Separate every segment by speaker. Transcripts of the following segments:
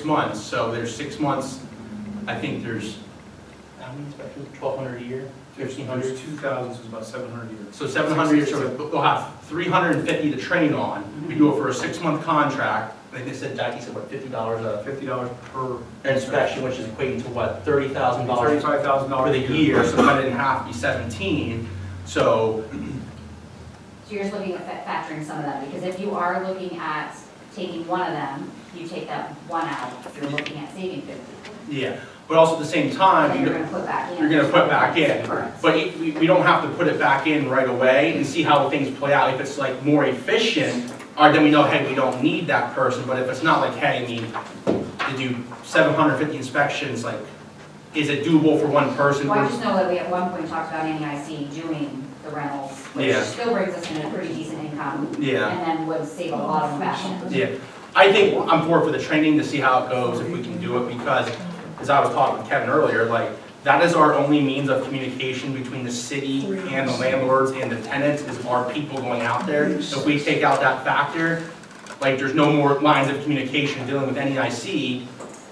Speaker 1: six months, so there's six months, I think there's, how many inspectors, twelve hundred a year, fifteen hundred?
Speaker 2: There's two thousands, it's about seven hundred a year.
Speaker 1: So seven hundred, so we'll have three hundred and fifty to train on, we do it for a six-month contract, I think they said, Dyke said, what, fifty dollars a
Speaker 2: Fifty dollars per.
Speaker 1: inspection, which is equating to what, thirty thousand dollars
Speaker 2: Thirty-five thousand
Speaker 1: for
Speaker 2: dollars.
Speaker 1: the year, so cut it in half, be seventeen, so
Speaker 3: So you're just looking at fa- factoring some of them, because if you are looking at taking one of them, you take that one out, you're looking at saving fifty.
Speaker 1: Yeah, but also at the same time,
Speaker 3: Then you're
Speaker 1: you-
Speaker 3: gonna put back in.
Speaker 1: you're gonna put back in.
Speaker 3: Correct.
Speaker 1: But it- we, we don't have to put it back in right away and see how things play out. If it's like more efficient, or then we know, hey, we don't need that person, but if it's not like, hey, I mean, to do seven hundred fifty inspections, like, is it doable for one person?
Speaker 3: Well, I just know that we at one point talked about NEIC doing the rentals, which
Speaker 1: Yeah.
Speaker 3: still brings us in a pretty decent income,
Speaker 1: Yeah,
Speaker 3: and then would save a lot of back end.
Speaker 1: yeah. I think I'm for, for the training to see how it goes, if we can do it, because as I was talking with Kevin earlier, like, that is our only means of communication between the city and the landlords and the tenants, is our people going out there. If we take out that factor, like, there's no more lines of communication dealing with NEIC,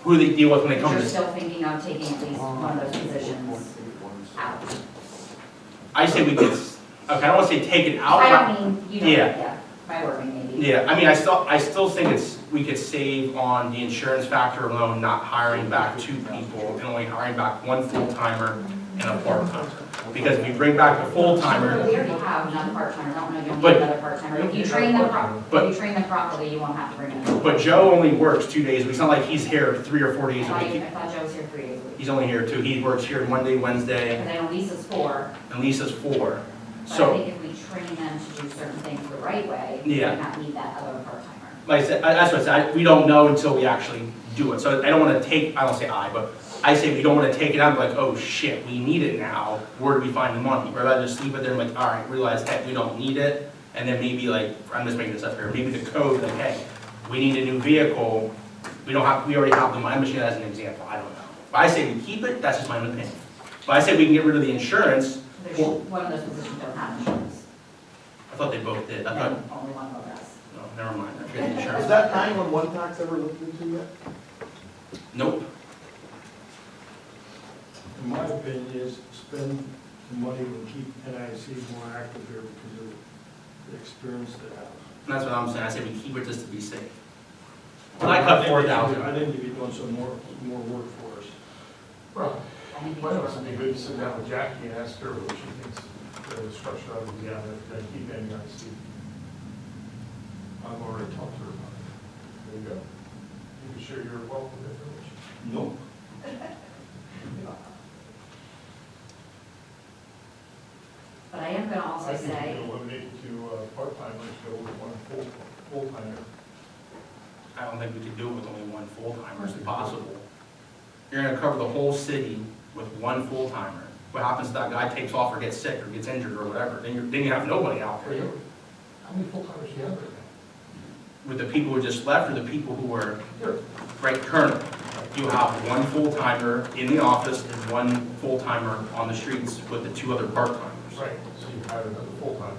Speaker 1: who they deal with when they come
Speaker 3: You're
Speaker 1: to.
Speaker 3: still thinking of taking at least one of those positions out.
Speaker 1: I say we could, s- okay, I don't wanna say take it out.
Speaker 3: I don't mean, you know,
Speaker 1: Yeah.
Speaker 3: yeah, my wording maybe.
Speaker 1: Yeah, I mean, I still, I still think it's, we could save on the insurance factor alone, not hiring back two people and only hiring back one full-timer and a part-timer. Because if you bring back the full-timer,
Speaker 3: We already have another part-timer, I don't know if you'll
Speaker 1: But-
Speaker 3: need another part-timer, if you train them properly,
Speaker 1: but-
Speaker 3: if you train them properly, you won't have to bring them.
Speaker 1: but Joe only works two days, a week. it's not like he's here three or four
Speaker 3: I
Speaker 1: days a
Speaker 3: thought, you-
Speaker 1: week.
Speaker 3: I thought Joe was here three days a week,
Speaker 1: He's only here two, he works here Monday, Wednesday,
Speaker 3: because I know Lisa's four,
Speaker 1: and Lisa's four.
Speaker 3: but I
Speaker 1: So,
Speaker 3: think if we train them to do certain things the right way, we
Speaker 1: Yeah.
Speaker 3: might not need that other part-timer.
Speaker 1: like I said, I- that's what I said, I- we don't know until we actually do it. So I don't wanna take, I don't say I, but I say we don't wanna take it out, like, oh shit, we need it now, where do we find the money? We're about to just leave it there and like, all right, realize, hey, we don't need it, and then maybe like, I'm just making this up here, maybe the code, like, hey, we need a new vehicle, we don't have, we already have the, I'm just using that as an example, I don't know. But I say we keep it, that's just my own opinion. But I say we can get rid of the insurance,
Speaker 3: There's,
Speaker 1: Well-
Speaker 3: one of those positions don't have insurance,
Speaker 1: I thought they both did, I
Speaker 3: and
Speaker 1: thought,
Speaker 3: only one of us.
Speaker 1: no, never mind, I forget the
Speaker 4: Is
Speaker 1: insurance.
Speaker 4: that nine-one-one tax ever looked into yet?
Speaker 1: Nope,
Speaker 5: In my opinion is spend the money and keep NIC more active here because of the experience they have.
Speaker 1: that's what I'm saying, I say we keep it just to be safe. Well, I cut four thousand.
Speaker 5: I think you'd be doing some more, more work for us.
Speaker 6: Well,
Speaker 3: I think
Speaker 6: why
Speaker 3: these
Speaker 6: don't
Speaker 3: were-
Speaker 6: it be good to sit down with Jackie and ask her what she thinks the structure of uh, the, yeah, that he may not see. I've already talked to her about it. There you go. You can share your wealth with everyone.
Speaker 5: Nope.
Speaker 3: But I am gonna also
Speaker 6: I think
Speaker 3: say,
Speaker 6: you eliminate two uh, part-timers, go with one full, full-timer.
Speaker 1: I don't think we could do it with only one full-timer, it's impossible. You're gonna cover the whole city with one full-timer. What happens if that guy takes off or gets sick or gets injured or whatever, then you're, then you have nobody out there.
Speaker 6: How many full-timers do you have right now?
Speaker 1: With the people who just left or the people who are
Speaker 6: Here.
Speaker 1: right currently. You have one full-timer in the office and one full-timer on the streets with the two other part-timers.
Speaker 6: Right, so you hired another full-timer,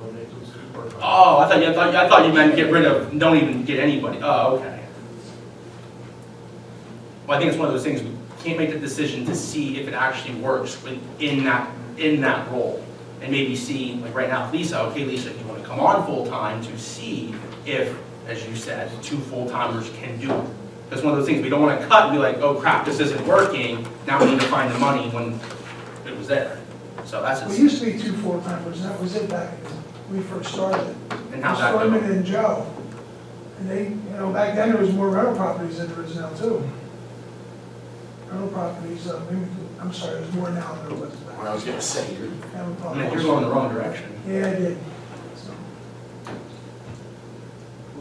Speaker 6: eliminate those two part-timers.
Speaker 1: Oh, I thought, you- I thought, I thought you meant get rid of, don't even get anybody, oh, okay. Well, I think it's one of those things, we can't make the decision to see if it actually works when- in that, in that role. And maybe see, like right now, Lisa, okay, Lisa, you wanna come on full-time to see if, as you said, two full-timers can do it. That's one of those things, we don't wanna cut and be like, oh crap, this isn't working, now we need to find the money when it was there. So that's,
Speaker 7: We
Speaker 1: just-
Speaker 7: used to be two full-timers, and that was it back when we first started.
Speaker 1: and how's that
Speaker 7: Storman
Speaker 1: going?
Speaker 7: and Joe. And they, you know, back then there was more rental properties than there is now too. Rental properties, uh, maybe, I'm sorry, there's more now than there was
Speaker 4: What I was gonna say, you're
Speaker 7: back. Rental
Speaker 1: I mean, you're
Speaker 7: properties.
Speaker 1: going the wrong direction.
Speaker 7: Yeah, I did. So,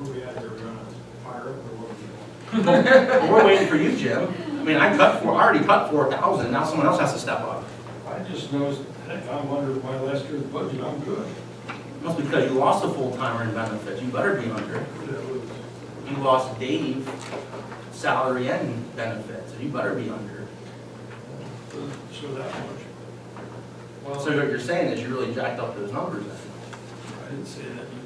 Speaker 5: Where we at, are we gonna fire up or what?
Speaker 1: Well, We're waiting for you, Jim. I mean, I cut four, I already cut four thousand, now someone else has to step up.
Speaker 5: I just noticed, heck, I'm under my last year's budget, I'm good.
Speaker 1: Must be because you lost a full-timer in benefits, you better be under.
Speaker 5: That was-
Speaker 1: You lost Dave, salary and benefits, so you better be under.
Speaker 5: uh, So that much.
Speaker 1: So what you're saying is you really jacked up those numbers then.
Speaker 5: I didn't say that.